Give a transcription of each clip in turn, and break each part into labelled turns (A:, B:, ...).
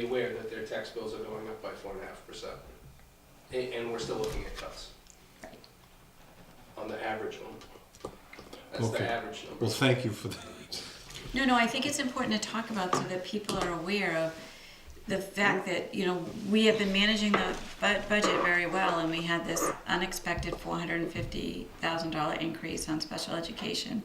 A: be aware that their tax bills are going up by four and a half percent. And, we're still looking at cuts. On the average one. That's
B: Okay.
A: the average number.
B: Well, thank you for that.
C: No, no, I think it's important to talk about so that people are aware of the fact that, you know, we have been managing the bu- budget very well and we had this unexpected four hundred and fifty thousand dollar increase on special education.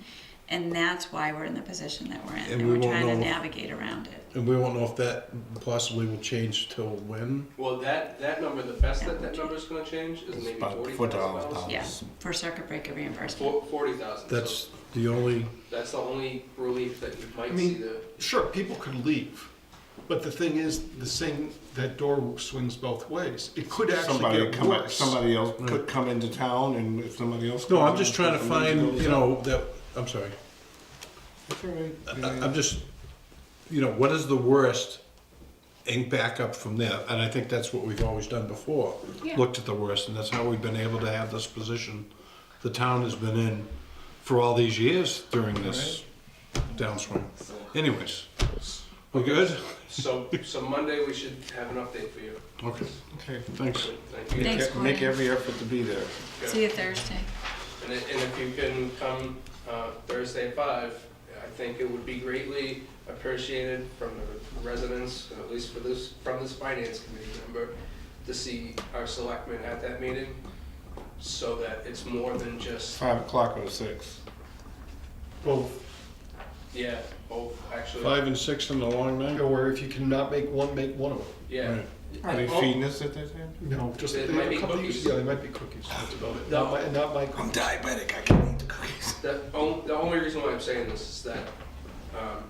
C: And that's why we're in the position that we're in,
B: And
C: and
B: we
C: we're
B: won't
C: trying to
B: know-
C: navigate around it.
B: And we won't know if that possibly will change till when.
A: Well, that, that number, the best that that number's gonna change is maybe
D: about
A: forty thousand
D: $40,000.
A: dollars.
C: Yeah,
D: Yes.
C: for circuit breaker reimbursement.
A: Four, forty thousand, so
B: That's the only.
A: that's the only relief that you
E: I
A: might see
E: mean-
A: the,
E: Sure, people can leave, but the thing is, the same, that door swings both ways. It could actually
D: Somebody
E: get
D: come,
E: worse.
D: somebody else could come into town and if somebody else.
B: Mm. No,
D: comes
B: I'm just
D: in,
B: trying to
D: somebody
B: find,
D: goes
B: you
D: up.
B: know, that, I'm sorry.
D: That's all right.
B: I-
D: Yeah.
B: I'm just, you know, what is the worst and back up from there? And I think that's what we've always done before.
C: Yeah.
B: Looked at the worst and that's how we've been able to have this position the town has been in for all these years during this downswing. Anyways, we good?
A: so, so Monday we should have an update for you.
B: Okay,
D: Okay.
B: thanks.
A: Thank you.
C: Thanks,
D: Make- Make
C: Gordon.
D: every effort to be there.
C: See you Thursday.
A: And if, and if you can come uh, Thursday at five, I think it would be greatly appreciated from the residents, at least for this, from this finance committee member, to see our selectmen at that meeting, so that it's more than just,
D: Five o'clock or six.
E: Well,
A: yeah, oh, actually,
B: Five and six in the long night?
E: or if you cannot make one, make one of them.
A: yeah.
B: Right.
D: Are they
A: Oh,
D: feeding us at that time?
E: No, just
A: It
E: they
A: might
E: have a
A: be
E: couple of-
A: cookies.
E: Yeah, they might be cookies. That's about it.
A: No.
E: Not my, not my cookies.
D: diabetic, I can't eat the cookies.
A: The only, the only reason why I'm saying this is that, um,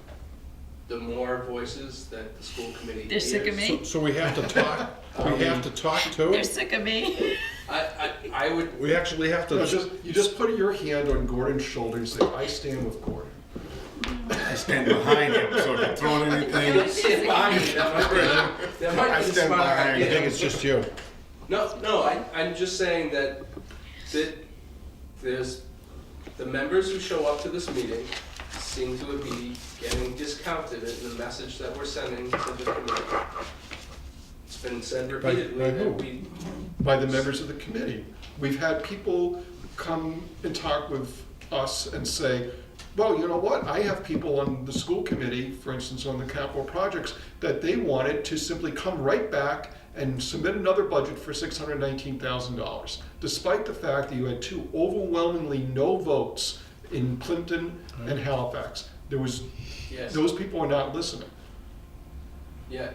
A: the more voices that the school committee
C: They're
A: hears.
C: sick of me.
B: So, so we have to talk, we have to talk to
C: They're
B: it?
C: sick of me.
A: I, I, I would,
B: We actually have
E: No,
B: to,
E: just, you just put your hand on Gordon's shoulder and say, I stand with Gordon.
D: I stand behind him, so if you're throwing
A: I
D: anything,
A: stand behind you, that might be, that might
D: I
A: be the
D: stand
A: smart
D: behind you.
B: I
A: idea.
B: think it's just you.
A: No, no, I, I'm just saying that, that there's, the members who show up to this meeting seem to be getting discounted in the message that we're sending to the committee. It's been said
E: By-
A: repeatedly
E: by who?
A: that we,
E: by the members of the committee. We've had people come and talk with us and say, well, you know what, I have people on the school committee, for instance, on the capital projects, that they wanted to simply come right back and submit another budget for six hundred nineteen thousand dollars, despite the fact that you had two overwhelmingly no votes in Plimpton and Halifax. There was,
A: yes,
E: those people are not listening.
A: yeah,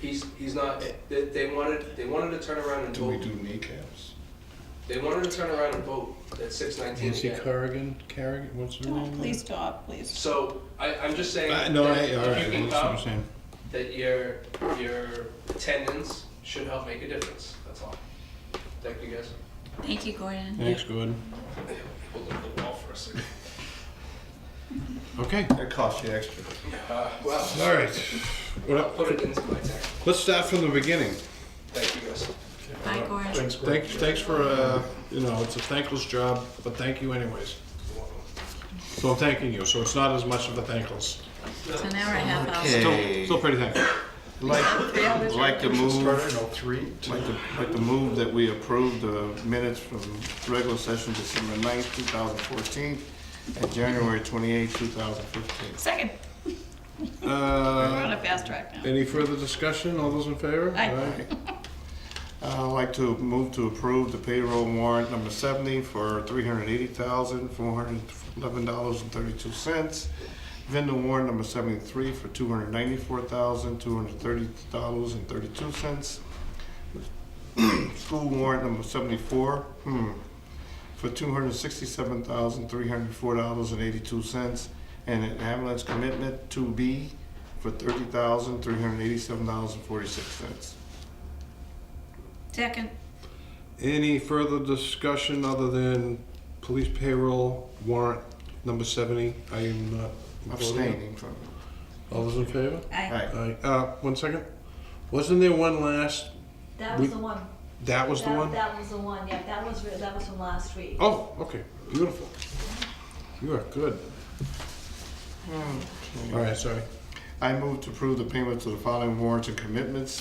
A: he's, he's not, they, they wanted, they wanted to turn around and
D: do we
A: vote.
D: do kneecaps?
A: They wanted to turn around and vote at six nineteen
B: Nancy
A: again.
B: Corrigan, Carrigan, what's her name?
C: Please stop, please.
A: So, I, I'm just saying
B: Uh,
A: that
B: no, I, all
A: if
B: right,
A: you
B: I
A: can
B: what I'm
A: come,
B: saying.
A: that your, your attendance should help make a difference, that's all. Thank you guys.
C: Thank you, Gordon.
B: Thanks, Gordon.
A: Hold up the wall for a second.
B: Okay,
D: That costs you extra.
A: Uh, well,
B: all right. Well,
A: put it into my tank.
B: let's start from the beginning.
A: Thank you guys.
C: Bye, Gordon.
E: Thanks, Gordon.
B: Thanks, thanks for, uh, you know, it's a thankless job, but thank you anyways. So I'm thanking you, so it's not as much of a thankless.
C: So now we're at half hour.
B: Still, still pretty thankful.
D: Like, like to move.
E: Start, I don't know, oh three, two,
D: Like the, like the move that we approved the minutes from regular session December 9th, 2014, and January 28th, 2015.
C: Second, we're on
B: Uh,
C: a fast track now.
B: any further discussion? All those in favor?
C: Aye.
B: Aye.
D: Uh, I'd like to move to approve the payroll warrant number 70 for $380,411.32. Vendor warrant number 73 for $294,230.32. School warrant number 74, hmm, for $267,304.82. And an ambulance commitment 2B for $30,387.46.
C: Second,
B: Any further discussion other than police payroll warrant number seventy? I am not voting.
D: abstaining from it.
B: All those in favor?
C: aye.
D: Right.
B: Aye. Uh, one second. Wasn't there one last,
F: That
B: We-
F: was the one.
B: that was the
F: That-
B: one?
F: That was the one, yeah, that was, re- that was from last week.
B: Oh, okay, beautiful. You are good. All right, sorry.
D: I move to approve the payments of the following warrants and commitments